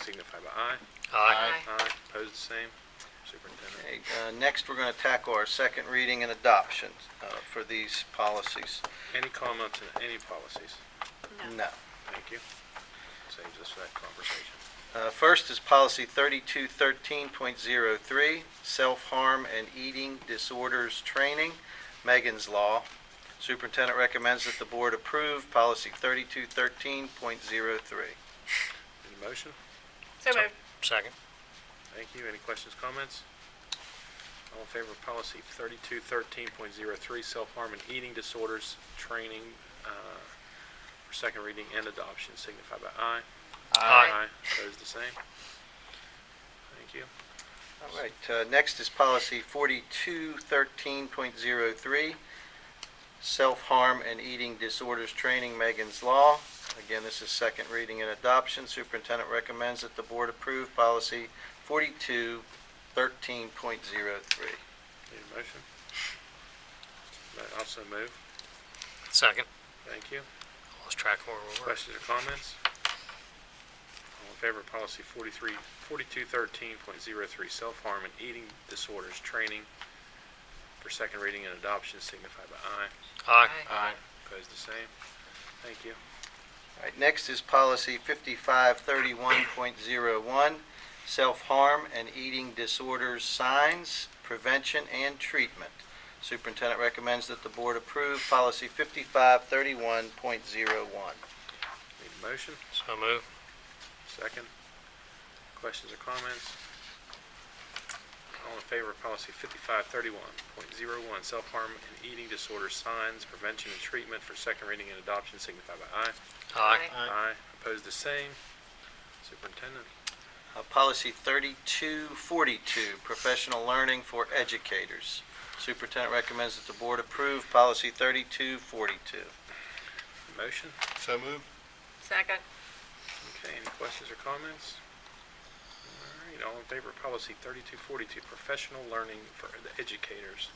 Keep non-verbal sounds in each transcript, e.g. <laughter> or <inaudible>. signify by aye. Aye. Aye, opposed, the same. Superintendent. Okay, uh, next, we're going to tackle our second reading and adoption uh, for these policies. Any comments on any policies? No. Thank you. Saves us that conversation. Uh, First is policy 3213.03, self-harm and eating disorders training, Megan's Law. Superintendent recommends that the board approve policy 3213.03. Any motion? So moved. Second. Thank you. Any questions, comments? All in favor of policy thirty-two thirteen point zero three, self-harm and eating disorders, training, uh, for second reading and adoption, signify by aye. Aye. Opposed, the same. Thank you. All right, uh, next is policy 4213.03, self-harm and eating disorders training, Megan's Law. Again, this is second reading and adoption. Superintendent recommends that the board approve policy 4213.03. Need a motion? Mo- Also move. Second. Thank you. Lost track of where we were. Questions or comments? All in favor of policy forty-three, forty-two thirteen point zero three, self-harm and eating disorders, training for second reading and adoption, signify by aye. Aye. Aye. Opposed, the same. Thank you. All right, next is policy 5531.01, self-harm and eating disorders signs, prevention and treatment. Superintendent recommends that the board approve policy 5531.01. Need a motion? So moved. Second. Questions or comments? All in favor of policy fifty-five thirty-one point zero one, self-harm and eating disorder signs, prevention and treatment for second reading and adoption, signify by aye. Aye. Aye. Opposed, the same. Superintendent. Uh, Policy 3242, professional learning for educators. Superintendent recommends that the board approve policy 3242. Motion? So moved. Second. Okay, any questions or comments? All right, all in favor of policy 3242, professional learning for the educators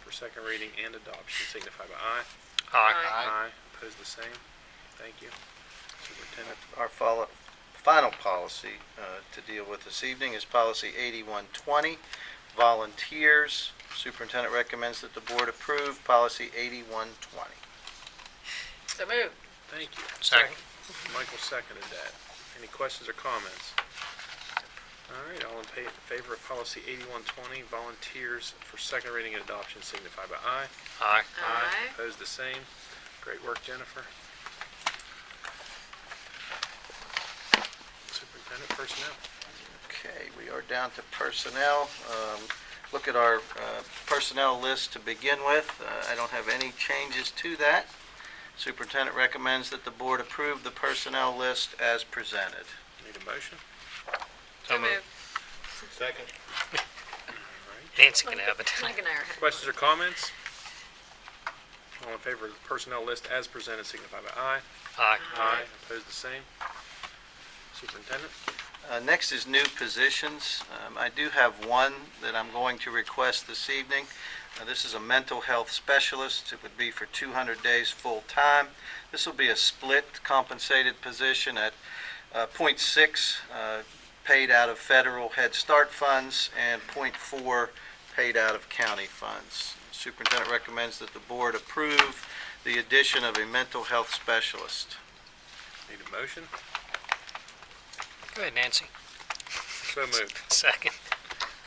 for second reading and adoption, signify by aye. Aye. Aye. Opposed, the same. Thank you. Superintendent, Our follow- final policy uh, to deal with this evening is policy 8120, volunteers. Superintendent recommends that the board approve policy 8120. So moved. thank you. Second. Michael seconded that. Any questions or comments? All right, all in pa- favor of policy 8120, volunteers for second reading and adoption, signify by aye. Aye. Aye. Opposed, the same. Great work, Jennifer. Superintendent Personnel. Okay, we are down to personnel. Um, Look at our uh, personnel list to begin with. Uh, I don't have any changes to that. Superintendent recommends that the board approve the personnel list as presented. Need a motion? So moved. Second. All right. Nancy can have it. <laughs> Mike and I are. Questions or comments? All in favor of the personnel list as presented, signify by aye. Aye. Aye. Opposed, the same. Superintendent? Uh, Next is new positions. Um, I do have one that I'm going to request this evening. Uh, This is a mental health specialist. It would be for 200 days full-time. This will be a split compensated position at uh, .6 uh, paid out of federal Head Start funds and .4 paid out of county funds. Superintendent recommends that the board approve the addition of a mental health specialist. Need a motion? Go ahead, Nancy. So moved. Second.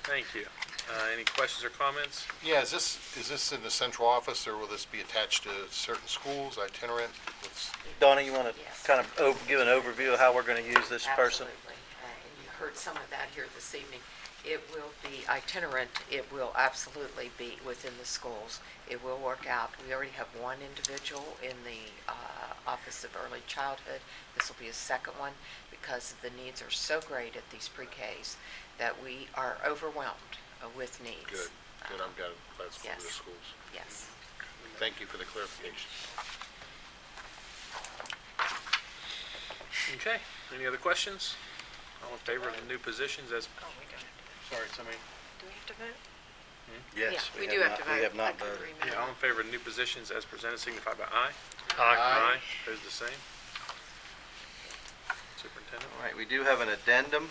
Thank you. Uh, Any questions or comments? Yeah, is this, is this in the central office, or will this be attached to certain schools, itinerant? What's- Donna, you want Yes. to kind of give an overview of how we're going to use this person? Absolutely. Uh, and You heard some of that here this evening. It will be itinerant. It will absolutely be within the schools. It will work out. We already have one individual in the uh, Office of Early Childhood. This will be a second one because the needs are so great at these pre-Ks that we are overwhelmed uh, with needs. Good, good, I'm glad that's for the Yes. schools. Yes. Thank you for the clarification. Okay. Any other questions? All in favor of the new positions as, Oh, we don't have to, Sorry, somebody. do we have to vote? Yes, Yeah, we do have to not, we vote. have I not couldn't voted. yeah, remember. all in favor of new positions as presented, signify by aye. Aye. Opposed, the same. Superintendent? All right, we do have an addendum.